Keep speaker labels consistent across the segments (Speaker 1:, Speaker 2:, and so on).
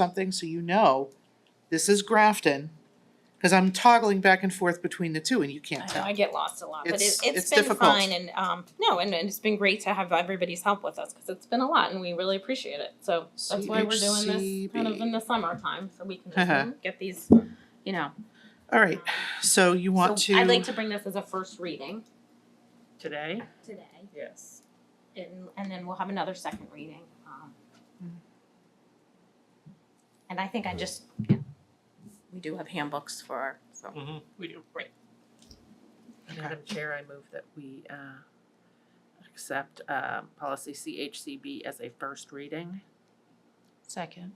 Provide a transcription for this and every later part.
Speaker 1: something so you know this is Grafton. Cause I'm toggling back and forth between the two and you can't
Speaker 2: I know,
Speaker 1: tell.
Speaker 2: I get lost a lot, but
Speaker 1: It's-
Speaker 2: it,
Speaker 1: it's
Speaker 2: it's been
Speaker 1: difficult.
Speaker 2: fine and, um, no, and, and it's been great to have everybody's help with us, cause it's been a lot and we really appreciate it, so that's why we're doing this kind of in the summertime, so we can
Speaker 1: Uh-huh.
Speaker 2: just get these, you know.
Speaker 1: Alright,
Speaker 2: um,
Speaker 1: so you want
Speaker 2: so
Speaker 1: to.
Speaker 2: I'd like to bring this as a first reading
Speaker 3: Today?
Speaker 2: today,
Speaker 3: Yes.
Speaker 2: and, and then we'll have another second reading, um.
Speaker 1: Mhm.
Speaker 2: And I think I just, yeah, we do have handbooks for, our so,
Speaker 3: We do. Right. Madam Chair, I move that we uh, accept uh, policy CHCB as a first reading.
Speaker 4: Second.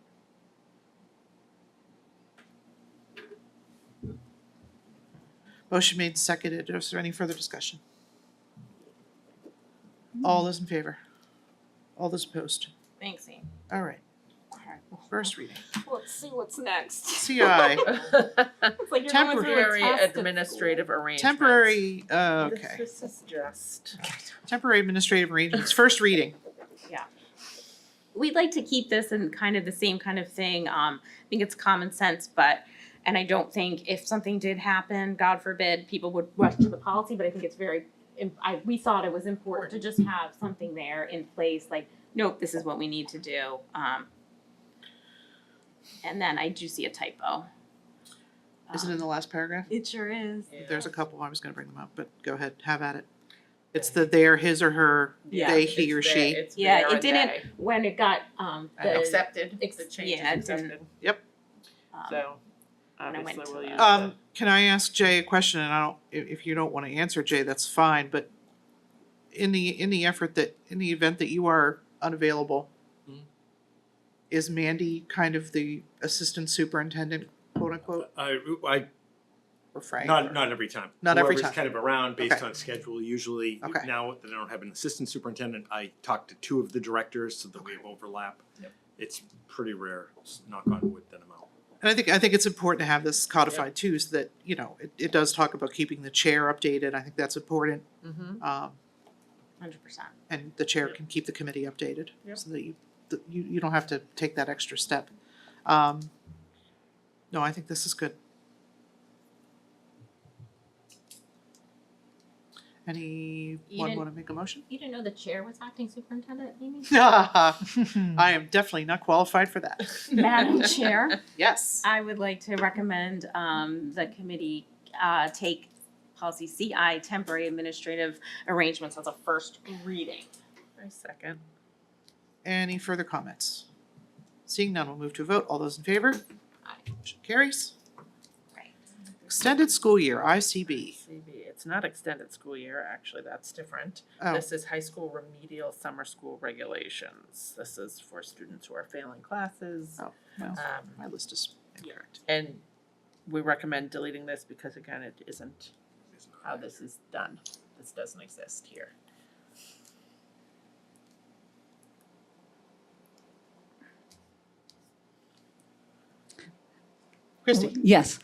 Speaker 1: Motion made, and seconded. Is there any further discussion? All those in favor? All those opposed?
Speaker 2: thanks, Amy.
Speaker 1: Alright, first reading.
Speaker 2: Let's see what's next.
Speaker 1: CI,
Speaker 2: It's like you're going through a
Speaker 3: Temporary
Speaker 2: test at school.
Speaker 3: administrative arrangements.
Speaker 1: temporary, uh, okay,
Speaker 3: This is just.
Speaker 1: temporary administrative arrangements, first reading.
Speaker 2: we'd like to keep this in kind of the same kind of thing. Um, I think it's common sense, but, and I don't think if something did happen, God forbid, people would rush to the policy, but I think it's very, im- I, we thought it was important to just have something there in place, like, nope, this is what we need to do. Um, and then I do see a typo. Um,
Speaker 1: Is it in the last paragraph?
Speaker 4: It sure is.
Speaker 1: There's a couple, I was gonna bring them up, but go ahead, have at it. It's the there, his or her,
Speaker 2: Yeah,
Speaker 1: they, he or
Speaker 3: It's there-
Speaker 1: she.
Speaker 3: it's
Speaker 2: Yeah,
Speaker 3: there
Speaker 2: it
Speaker 3: and
Speaker 2: didn't-
Speaker 3: they.
Speaker 2: When it got, um, the.
Speaker 3: Accepted,
Speaker 2: ex-
Speaker 3: the change is
Speaker 2: yeah, it didn't-
Speaker 3: accepted,
Speaker 2: um,
Speaker 3: so
Speaker 2: when I went
Speaker 3: obviously
Speaker 2: to
Speaker 3: we'll
Speaker 2: the-
Speaker 3: use the,
Speaker 1: Um, can I ask Jay a question, and I don't, if, if you don't wanna answer, Jay, that's fine, but in the, in the effort that, in the event that you are unavailable,
Speaker 5: Mhm.
Speaker 1: is Mandy kind of the assistant superintendent, quote unquote,
Speaker 5: I, I,
Speaker 1: or Frank? or-
Speaker 5: not, not every time.
Speaker 1: Not every time.
Speaker 5: Whoever's kind of around based
Speaker 1: Okay.
Speaker 5: on schedule, usually,
Speaker 1: Okay.
Speaker 5: now that I don't have an assistant superintendent, I talk to two of the directors so that we have overlap.
Speaker 3: Yep.
Speaker 5: It's pretty rare, s- knock on wood, that I'm out.
Speaker 1: And I think, I think it's important to have this codified too, so that, you know, it, it does talk about keeping the chair updated, I think that's important.
Speaker 3: Mhm.
Speaker 1: Um,
Speaker 2: Hundred percent.
Speaker 1: and the chair
Speaker 3: Yep.
Speaker 1: can keep the committee updated.
Speaker 3: Yep.
Speaker 1: So that you, that you, you don't have to take that extra step. Um, no, I think this is good. Anyone
Speaker 2: didn't-
Speaker 1: wanna make a motion?
Speaker 2: You didn't know the chair was acting superintendent, Amy?
Speaker 1: I am definitely not qualified for that.
Speaker 3: Mm-hmm.
Speaker 2: Madam Chair.
Speaker 1: Yes.
Speaker 2: I would like to recommend um the committee uh take policy CI temporary administrative arrangements as a first reading.
Speaker 3: I second.
Speaker 1: Any further comments? Seeing none, we'll move to a vote. All those in favor?
Speaker 2: Aye.
Speaker 1: Motion carries.
Speaker 2: Right.
Speaker 1: Extended school year, ICB.
Speaker 3: CB, it's not extended school year, actually, that's different.
Speaker 1: Oh,
Speaker 3: This is high school remedial summer school regulations. This is for students who are failing classes.
Speaker 1: Oh,
Speaker 2: Uh,
Speaker 1: well.
Speaker 3: Um,
Speaker 1: my list is incorrect.
Speaker 3: and we recommend deleting this because again, it isn't
Speaker 5: It's not-
Speaker 3: how this is done. This doesn't exist here.
Speaker 1: Christie?
Speaker 6: Yes.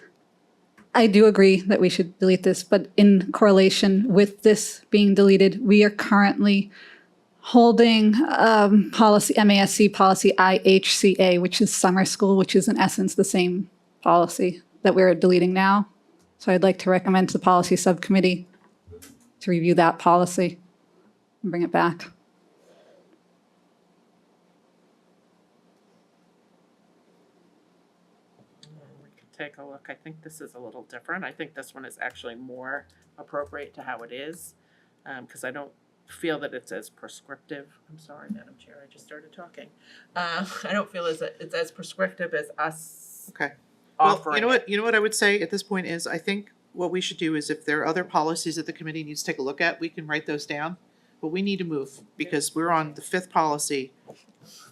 Speaker 6: I do agree that we should delete this, but in correlation with this being deleted, we are currently holding um, policy, MASC policy IHCA, which is summer school, which is in essence the same policy that we're deleting now. So I'd like to recommend to the policy subcommittee to review that policy and bring it back.
Speaker 3: Mm, We could take a look. I think this is a little different. I think this one is actually more appropriate to how it is. Um, cause I don't feel that it's as prescriptive. I'm sorry, Madam Chair, I just started talking. Uh, I don't feel as, it's as prescriptive as us
Speaker 1: Okay. Well,
Speaker 3: offering
Speaker 1: you know
Speaker 3: it.
Speaker 1: what, you know what I would say at this point is, I think what we should do is if there are other policies that the committee needs to take a look at, we can write those down. But we need to move because we're on the fifth policy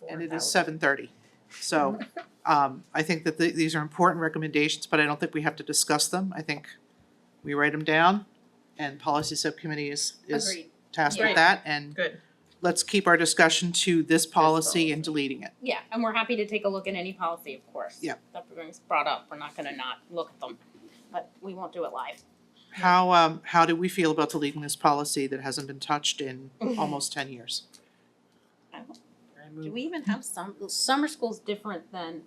Speaker 1: and it is seven thirty. So, um, I think that the, these are important recommendations, but I don't think we have to discuss them. I think we write them down and policy subcommittee is, is
Speaker 2: Agreed.
Speaker 1: tasked
Speaker 3: Yeah.
Speaker 1: with that and
Speaker 3: Good.
Speaker 1: let's keep our discussion to this policy
Speaker 3: policy.
Speaker 1: and deleting it.
Speaker 2: Yeah, and we're happy to take a look at any policy, of course.
Speaker 1: Yeah.
Speaker 2: That brings brought up, we're not gonna not look at them, but we won't do it live.
Speaker 1: How, um, how do we feel about deleting this policy that hasn't been touched in almost ten years?
Speaker 3: I
Speaker 2: Do
Speaker 3: move
Speaker 2: we even have some, summer school's different than